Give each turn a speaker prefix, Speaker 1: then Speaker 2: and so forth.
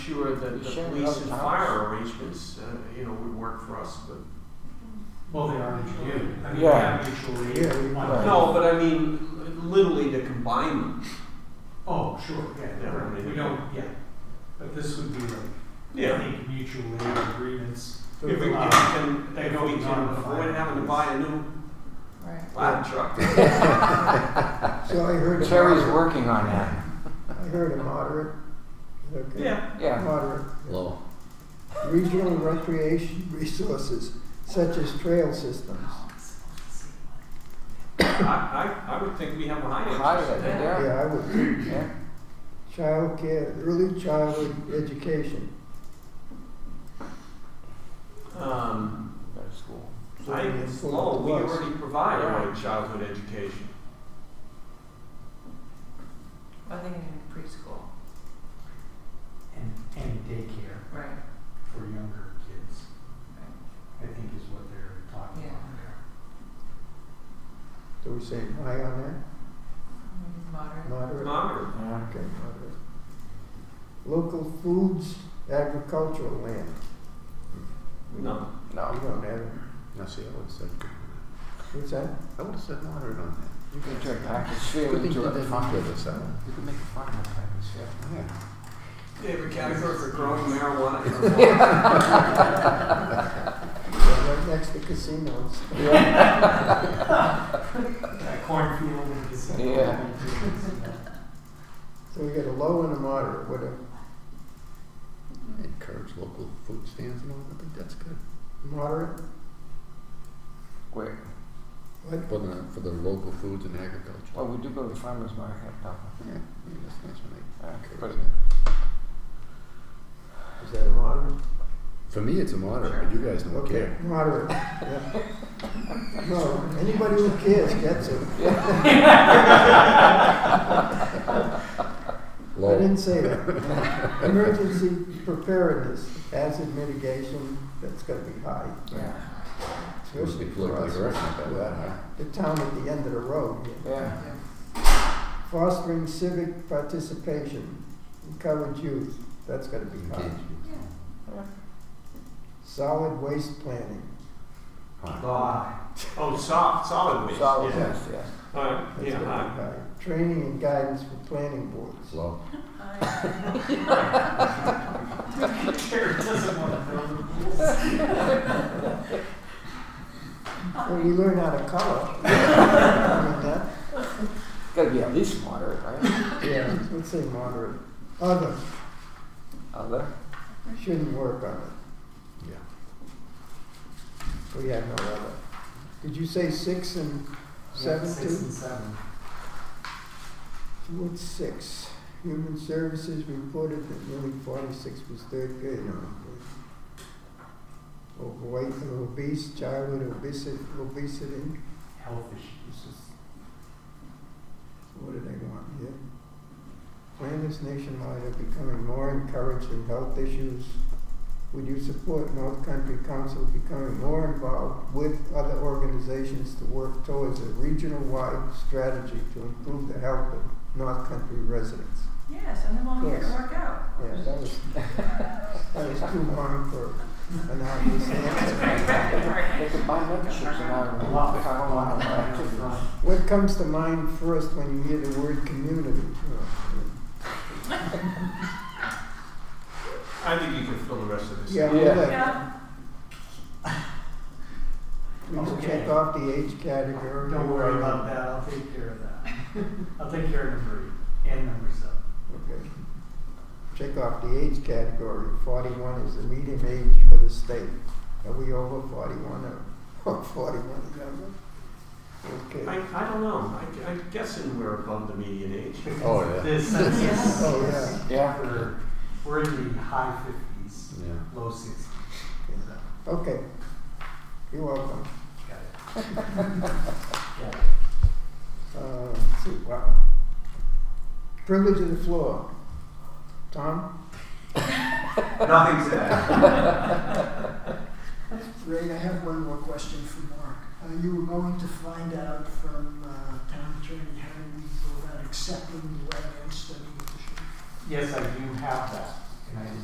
Speaker 1: sure that the
Speaker 2: Sure,
Speaker 1: police
Speaker 2: other
Speaker 1: and
Speaker 2: towns.
Speaker 1: fire arrangements, uh, you know, would work for us, but.
Speaker 3: Well, they are mutual aid. I mean, we
Speaker 2: Yeah.
Speaker 3: have mutual aid.
Speaker 2: Yeah, we-
Speaker 3: One-
Speaker 2: right.
Speaker 1: No, but I mean, literally to combine them.
Speaker 3: Oh, sure, yeah,
Speaker 1: Yeah,
Speaker 3: right.
Speaker 1: right.
Speaker 3: we don't, yeah. But this would be like, I think mutual aid agreements.
Speaker 1: If we, if we
Speaker 3: Uh,
Speaker 1: can,
Speaker 3: they
Speaker 1: if
Speaker 3: go
Speaker 1: we can
Speaker 3: beyond the
Speaker 1: avoid
Speaker 3: fire.
Speaker 1: having to buy a new
Speaker 4: Right.
Speaker 1: ladder truck.
Speaker 2: So I heard. a
Speaker 5: Terry's
Speaker 2: moderate-
Speaker 5: working on that.
Speaker 2: I heard a moderate. Is that okay?
Speaker 1: Yeah,
Speaker 5: Yeah.
Speaker 2: Moderate.
Speaker 6: Low.
Speaker 2: Regional recreation resources such as trail systems.
Speaker 1: I, I, I would think we have a high
Speaker 5: High
Speaker 1: interest in
Speaker 5: end,
Speaker 1: that.
Speaker 5: yeah.
Speaker 2: Yeah, I would.
Speaker 5: yeah.
Speaker 2: Childcare, early childhood education.
Speaker 1: Um,
Speaker 5: Go to school.
Speaker 2: So
Speaker 1: I,
Speaker 2: we can
Speaker 1: it's
Speaker 2: pull
Speaker 1: low,
Speaker 2: up
Speaker 1: we
Speaker 2: the bus.
Speaker 1: already provide
Speaker 5: Yeah.
Speaker 1: early childhood education.
Speaker 4: I think in preschool,
Speaker 3: And, and daycare
Speaker 4: right,
Speaker 3: for younger kids,
Speaker 4: right,
Speaker 3: I think is what they're talking about
Speaker 4: Yeah.
Speaker 3: there.
Speaker 2: Do we say high on
Speaker 4: Mm,
Speaker 2: that?
Speaker 4: moderate,
Speaker 2: Moderate?
Speaker 1: Moderate.
Speaker 5: Yeah.
Speaker 2: Okay, moderate. Local foods, agricultural land.
Speaker 1: No.
Speaker 2: We
Speaker 5: No.
Speaker 2: don't have, it.
Speaker 6: Now, see, I would have said,
Speaker 2: what's that?
Speaker 6: I would have said moderate on that.
Speaker 5: You can turn package field
Speaker 6: Good thing
Speaker 5: into
Speaker 6: you
Speaker 5: a
Speaker 6: didn't
Speaker 5: farm.
Speaker 6: do this, huh?
Speaker 5: You can make a farm out of package field.
Speaker 6: Yeah.
Speaker 1: Favorite category for growing marijuana?
Speaker 2: Yeah, right next to casinos.
Speaker 3: That cornfield and this.
Speaker 5: Yeah.
Speaker 2: So we get a low and a moderate, what a
Speaker 6: Encourage local food stands and all, I think that's good.
Speaker 2: moderate,
Speaker 5: Wait,
Speaker 2: what?
Speaker 6: For the, for the local foods and agriculture.
Speaker 5: well, we do go to farmer's market, though.
Speaker 6: Yeah, yeah, that's nice when
Speaker 5: Yeah,
Speaker 6: they
Speaker 5: but
Speaker 6: encourage that.
Speaker 2: Is that a moderate?
Speaker 6: For me, it's a moderate, but you guys don't
Speaker 2: Okay,
Speaker 6: care.
Speaker 2: moderate, yeah. No, anybody who cares gets it. I
Speaker 6: Low.
Speaker 2: didn't say that. Emergency preparedness, hazard mitigation, that's gotta be high,
Speaker 5: yeah,
Speaker 2: especially
Speaker 6: Look
Speaker 2: for
Speaker 6: like
Speaker 2: us.
Speaker 6: we're not that bad, huh?
Speaker 2: The town at the end of the road. here.
Speaker 5: yeah.
Speaker 4: yeah,
Speaker 2: Fostering civic participation, encourage youth, that's gotta be high.
Speaker 6: Engagement.
Speaker 4: yeah.
Speaker 2: Solid waste planning,
Speaker 6: High.
Speaker 1: Law. Oh, soft, solid waste,
Speaker 5: Solid
Speaker 1: yeah.
Speaker 5: waste, yes.
Speaker 1: Alright,
Speaker 2: that's gotta
Speaker 1: yeah,
Speaker 2: be
Speaker 1: alright.
Speaker 2: high. Training and guidance for planning boards.
Speaker 6: Low.
Speaker 3: Terry doesn't want to build the rules.
Speaker 2: Well, you learn how to color. I mean, that-
Speaker 5: Gotta be at least moderate, right?
Speaker 2: Yeah, let's say moderate. Other,
Speaker 5: Other?
Speaker 2: shouldn't work on it.
Speaker 6: Yeah.
Speaker 2: We have no other. Did you say six and
Speaker 3: Yeah,
Speaker 2: seven
Speaker 3: Six
Speaker 2: too?
Speaker 3: and seven.
Speaker 2: What's six? Human services reported that nearly forty-six was third grade. Overweight and obese, childhood obesity, obesity.
Speaker 3: Health issues.
Speaker 2: What did I want here? Planners nationwide are becoming more encouraged in health issues. Would you support North Country Council becoming more involved with other organizations to work towards a regional-wide strategy to improve the health of North Country residents?
Speaker 4: Yeah, send them all here to
Speaker 2: Yes.
Speaker 4: work out.
Speaker 2: Yeah, that was, that was too long for an obvious answer.
Speaker 5: They could buy memberships and I would
Speaker 3: Lot.
Speaker 5: if I don't want to buy
Speaker 3: Lot.
Speaker 5: activities.
Speaker 2: What comes to mind first when you hear the word community?
Speaker 1: I think you can fill the rest of this.
Speaker 2: Yeah,
Speaker 5: Yeah.
Speaker 2: we'll let-
Speaker 4: Yeah,
Speaker 2: Please
Speaker 3: Okay.
Speaker 2: check off the age category.
Speaker 3: Don't worry about that, I'll take care of that. I'll take care of number eight and number seven.
Speaker 2: Okay. Check off the age category. Forty-one is the median age for the state. Are we over forty-one or- or forty-one is over?
Speaker 1: I,
Speaker 2: Okay.
Speaker 1: I don't know, I, I'm guessing we're above the median age.
Speaker 6: Oh, yeah.
Speaker 3: The census
Speaker 2: Oh, yeah.
Speaker 5: Yeah,
Speaker 3: for, we're in the high fifties,
Speaker 6: Yeah.
Speaker 3: low sixties.
Speaker 2: Okay. You're welcome.
Speaker 3: Got it. Got it.
Speaker 2: Uh, let's see, wow. Privilege of the floor. Tom?
Speaker 1: Nothing said.
Speaker 7: Ray, I have one more question for Mark. Uh, you were going to find out from uh, town attorney how we go about accepting the wetland study.
Speaker 3: Yes, I do have that, and I did